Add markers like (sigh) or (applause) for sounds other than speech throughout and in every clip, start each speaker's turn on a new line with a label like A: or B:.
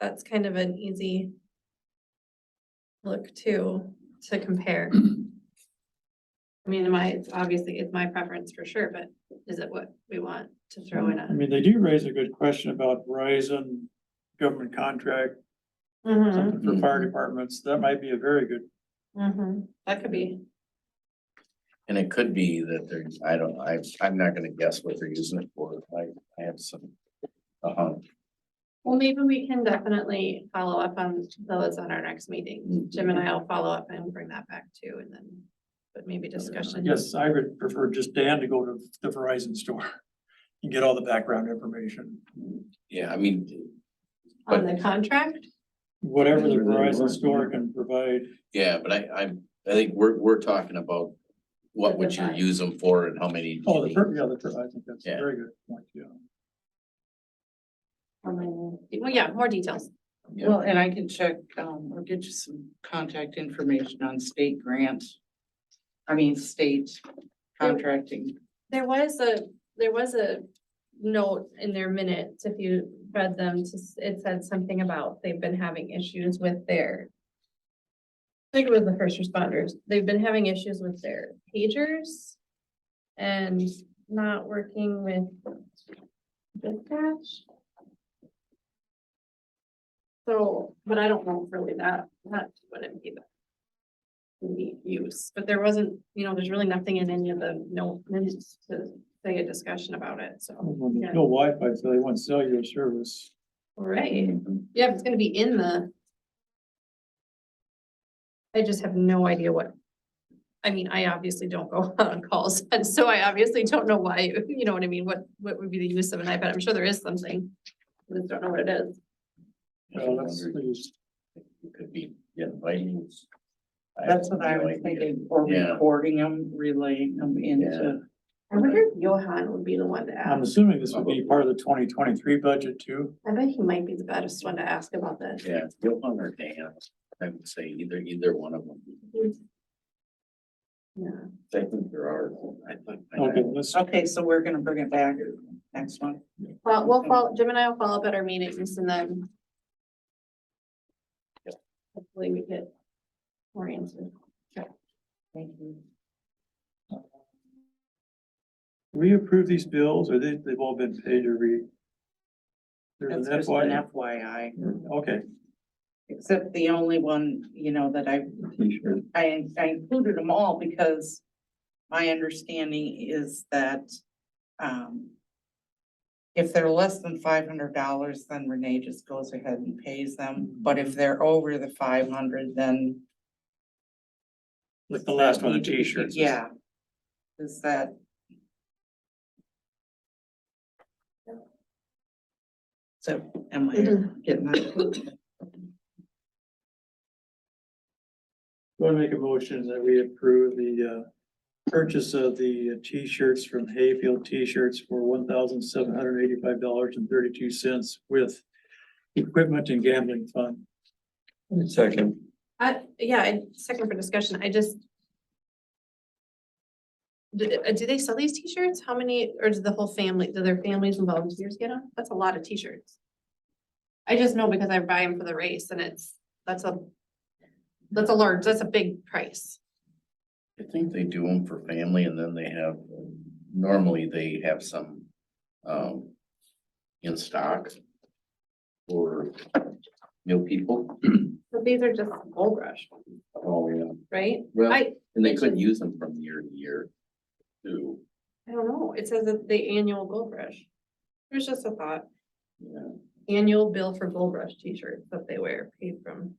A: that's kind of an easy look too, to compare. I mean, my, it's obviously, it's my preference for sure, but is it what we want to throw in
B: I
A: a?
B: mean, they do raise a good question about Verizon government contract,
A: Mhm,
B: something for
C: Mm-hmm.
B: fire departments. That might be a very good,
A: mhm. That could be,
C: And it could be that they're, I don't, I, I'm not gonna guess what they're using it for, I, I have some. Uh,
A: well, maybe we can definitely follow up on those on our next meeting.
C: Mhm.
A: Jim and I will follow up and bring that back too, and then, but maybe
B: I
A: discussion.
B: guess I would prefer just Dan to go to the Verizon store (laughs) and get all the background information.
C: yeah, I mean,
A: On the contract,
B: Whatever the Verizon store can provide,
C: yeah, but I, I, I think we're, we're talking about what would you
A: Different.
C: use them for and how many.
B: oh, the, per- yeah, the, per- I think that's a
C: Yeah.
B: very good point, yeah.
A: um, well, yeah, more details.
C: Yeah.
D: Well, and I can check, um, or get you some contact information on state grant. I mean, state contracting.
A: There was a, there was a note in their minutes, if you read them, to s- it said something about they've been having issues with their. I think it was the first responders, they've been having issues with their pagers. And not working with dispatch. So, but I don't know if really that, that wouldn't be the. Neat use, but there wasn't, you know, there's really nothing in any of the no minutes to say a discussion about it, so.
B: When
A: Yeah.
B: there's No Wi-Fi, so they want cellular service.
A: Right, Mm-hmm. yeah, if it's gonna be in the. I just have no idea what, I mean, I obviously don't go (laughs) on calls, and so I obviously don't know why, you know what I mean, what, what would be the use of an iPad, I'm sure there is something. I just don't know what it is.
B: Well, Uh, that's,
C: It Could be, yeah, inviting. I have
D: That's what I
C: no
D: was
C: idea.
D: thinking, or
C: Yeah.
D: recording them, relaying them
C: Yeah.
D: into.
A: I wonder if Johan would be the one to
B: I'm
A: ask,
B: assuming this would be part of the twenty twenty-three budget too.
A: I bet he might be the baddest one to ask about this.
C: Yeah, Johan or Dan, I would say either, either one of them,
A: Yeah,
C: I think there are. I think- I-
B: Okay, let's,
D: Okay, so we're gonna bring it back next one.
A: well, we'll follow, Jim and I will follow up at our meetings and then. Hopefully we get more answers.
D: Thank you.
B: we approve these bills or they, they've all been paid or we? There's
D: That's
B: an
D: just an
B: FY,
D: FYI,
B: okay.
D: except the only one, you know, that I
B: T-shirt.
D: I, I included them all because my understanding is that, um, if they're less than five hundred dollars, then Renee just goes ahead and pays them, but if they're over the five hundred, then.
B: Like the last one, the
D: need to be-
B: T-shirts.
D: Yeah. Is that, so am I getting that?
B: Want to make a motion that we approve the, uh, purchase of the uh, T-shirts from Hayfield T-shirts for one thousand seven hundred eighty-five dollars and thirty-two cents with equipment and gambling fund. Second.
A: Uh, yeah, I- second for discussion, I just. Do, uh, do they sell these t-shirts? How many, or do the whole family, do their families and volunteers get them? That's a lot of t-shirts. I just know because I buy them for the race and it's, that's a, that's a large, that's a big price.
C: I think they do them for family and then they have, normally they have some, um, in stock for new people. (clears throat)
A: But these are just gold rush,
C: Oh, yeah.
A: right?
C: Well,
A: I,
C: and they could use them from year to year too.
A: I don't know, it says that the annual gold rush. It was just a thought,
C: Yeah.
A: annual bill for gold rush t-shirts that they wear paid from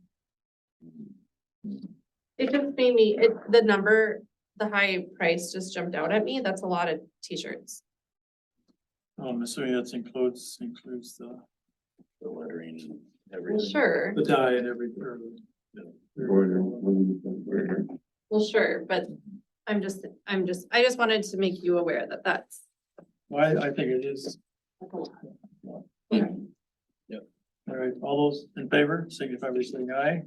A: It just made me, it, the number, the high price just jumped out at me. That's a lot of t-shirts.
B: I'm assuming that's includes, includes the,
C: The lettering and
A: Well,
C: everything.
A: sure,
B: the dye and everything. or the-
C: Border, border.
A: well, sure, but I'm just, I'm just, I just wanted to make you aware that that's.
B: Well, I, I think it is.
A: that's a lot.
B: All right, all those in favor, signify by saying aye.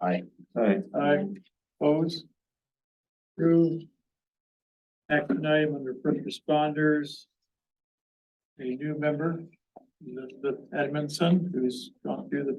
C: I,
B: Aye. Aye, opposed? Approved. Action item under first responders. A new member, Elizabeth Edmondson, who's gone through the